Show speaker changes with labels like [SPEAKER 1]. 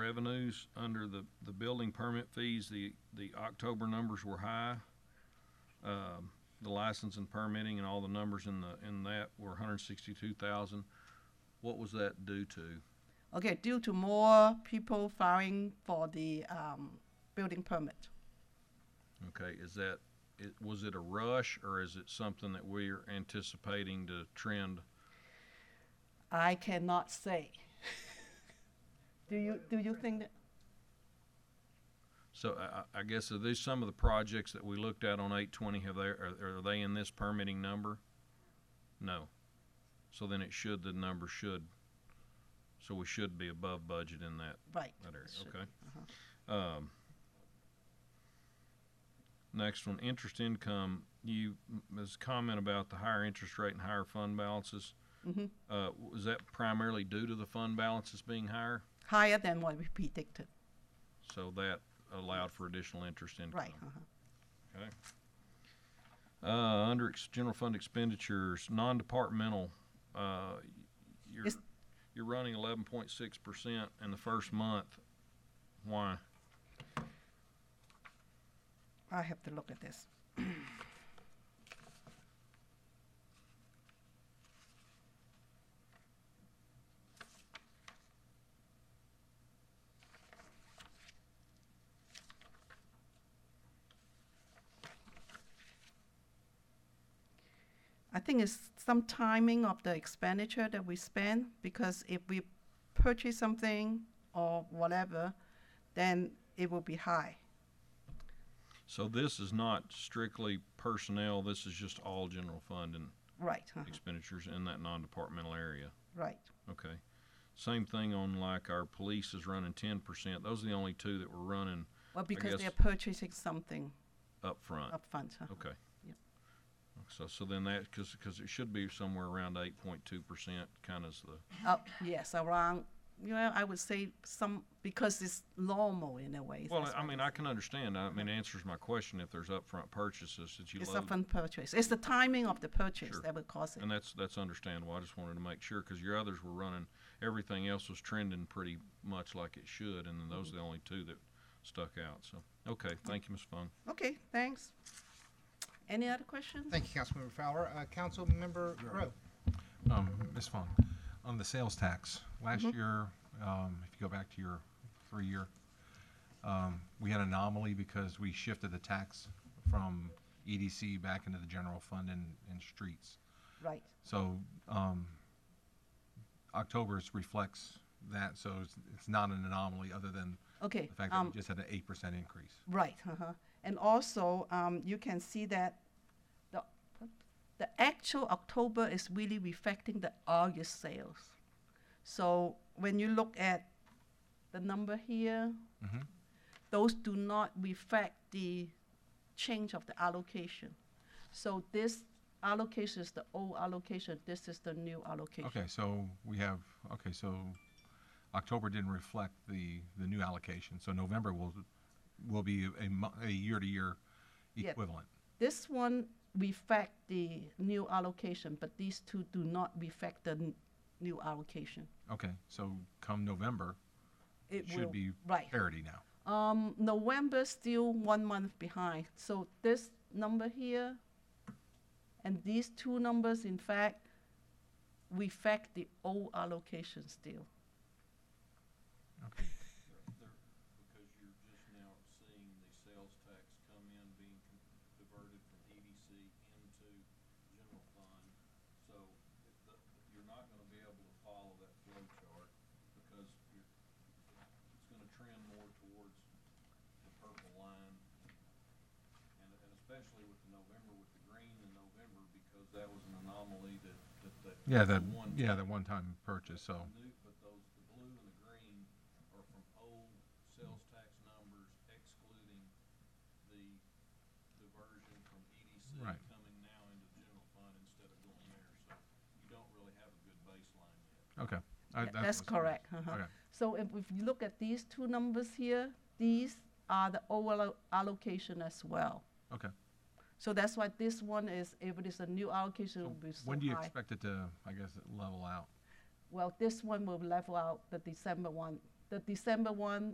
[SPEAKER 1] revenues under the, the building permit fees, the, the October numbers were high. Um, the license and permitting and all the numbers in the, in that were hundred and sixty-two thousand. What was that due to?
[SPEAKER 2] Okay, due to more people filing for the um, building permit.
[SPEAKER 1] Okay, is that, it, was it a rush or is it something that we're anticipating to trend?
[SPEAKER 2] I cannot say. do you do you think that?
[SPEAKER 1] So I, I- I guess are these some of the projects that we looked at on eight twenty, have they, are, are they in this permitting number? No. So then it should, the number should, so we should be above budget in that,
[SPEAKER 2] Right.
[SPEAKER 1] that area,
[SPEAKER 2] should- uh-huh.
[SPEAKER 1] okay? Um, next one, interest income, you, Ms. comment about the higher interest rate and higher fund balances.
[SPEAKER 2] Mhm.
[SPEAKER 1] Uh, was that primarily due to the fund balances being higher?
[SPEAKER 2] Higher than what we predicted.
[SPEAKER 1] So that allowed for additional interest income?
[SPEAKER 2] Right. uh-huh.
[SPEAKER 1] Uh, under ex- general fund expenditures, non-departmental, uh, you're,
[SPEAKER 2] Yes.
[SPEAKER 1] you're running eleven point six percent in the first month. Why?
[SPEAKER 2] I have to look at this. I think it's some timing of the expenditure that we spend because if we purchase something or whatever, then it will be high.
[SPEAKER 1] So this is not strictly personnel, this is just all general fund and
[SPEAKER 2] Right. uh-huh.
[SPEAKER 1] expenditures in that non-departmental area.
[SPEAKER 2] Right.
[SPEAKER 1] Okay. Same thing on like our police is running ten percent. Those are the only two that were running
[SPEAKER 2] Well, because they're
[SPEAKER 1] guess-
[SPEAKER 2] purchasing something
[SPEAKER 1] up front.
[SPEAKER 2] upfront. huh?
[SPEAKER 1] Okay.
[SPEAKER 2] Yep.
[SPEAKER 1] So, so then that, cause, 'cause it should be somewhere around eight point two percent, kinda is the.
[SPEAKER 2] Uh, yes, around, you know, I would say some, because it's normal in a way.
[SPEAKER 1] Well,
[SPEAKER 2] that's
[SPEAKER 1] I
[SPEAKER 2] what
[SPEAKER 1] mean,
[SPEAKER 2] it
[SPEAKER 1] I
[SPEAKER 2] is.
[SPEAKER 1] can understand. I mean, it answers my question if there's upfront purchases that you
[SPEAKER 2] It's
[SPEAKER 1] load.
[SPEAKER 2] upfront purchase. It's the timing of the purchase
[SPEAKER 1] Sure.
[SPEAKER 2] that will cause it.
[SPEAKER 1] And that's, that's understandable. I just wanted to make sure, cause your others were running, everything else was trending pretty much like it should, and then those
[SPEAKER 2] Mm-hmm.
[SPEAKER 1] are the only two that stuck out, so. Okay, thank you, Ms. Fung.
[SPEAKER 2] Okay, thanks. Any other questions?
[SPEAKER 3] Thank you, Councilmember Fowler. Uh, Councilmember Rowe.
[SPEAKER 4] Um, Ms. Fong, on the sales tax, last year, um, if you go back to your three-year, um, we had an anomaly because we shifted the tax from EDC back into the general fund and, and streets.
[SPEAKER 2] Right,
[SPEAKER 4] So, um, October's reflects that, so it's, it's not an anomaly other than
[SPEAKER 2] okay.
[SPEAKER 4] the fact that we
[SPEAKER 2] Um,
[SPEAKER 4] just had an eight percent increase.
[SPEAKER 2] right, uh-huh. And also, um, you can see that the, the actual October is really reflecting the August sales. So when you look at the number here,
[SPEAKER 4] Mhm.
[SPEAKER 2] those do not reflect the change of the allocation. So this allocation is the old allocation, this is the new allocation.
[SPEAKER 4] Okay, so we have, okay, so October didn't reflect the, the new allocation, so November will, will be a mo- a year-to-year
[SPEAKER 2] Yeah.
[SPEAKER 4] equivalent.
[SPEAKER 2] This one reflect the new allocation, but these two do not reflect the n- new allocation.
[SPEAKER 4] Okay, so come November,
[SPEAKER 2] It will-
[SPEAKER 4] should be
[SPEAKER 2] Right.
[SPEAKER 4] parity now.
[SPEAKER 2] Um, November still one month behind. So this number here and these two numbers, in fact, reflect the old allocation still.
[SPEAKER 4] Okay,
[SPEAKER 1] Because you're just now seeing the sales tax come in being diverted from EDC into general fund. So you're not gonna be able to follow that flow chart because you're, it's gonna trend more towards the purple line. And, and especially with the November, with the green in November, because that was an anomaly that, that, that.
[SPEAKER 4] Yeah, that,
[SPEAKER 1] one-
[SPEAKER 4] yeah, that one-time purchase, so,
[SPEAKER 1] New, but those, the blue and the green are from old sales tax numbers excluding the diversion from EDC
[SPEAKER 4] Right.
[SPEAKER 1] coming now into the general fund instead of going there, so you don't really have a good baseline yet.
[SPEAKER 4] okay. I-
[SPEAKER 2] Yeah, That's
[SPEAKER 4] what's curious.
[SPEAKER 2] correct. uh-huh.
[SPEAKER 4] Okay,
[SPEAKER 2] So if, if you look at these two numbers here, these are the overall allocation as well.
[SPEAKER 4] okay.
[SPEAKER 2] So that's why this one is, if it is a new allocation, it will be so
[SPEAKER 4] When do you
[SPEAKER 2] high.
[SPEAKER 4] expect it to, I guess, level out?
[SPEAKER 2] Well, this one will level out the December one the December one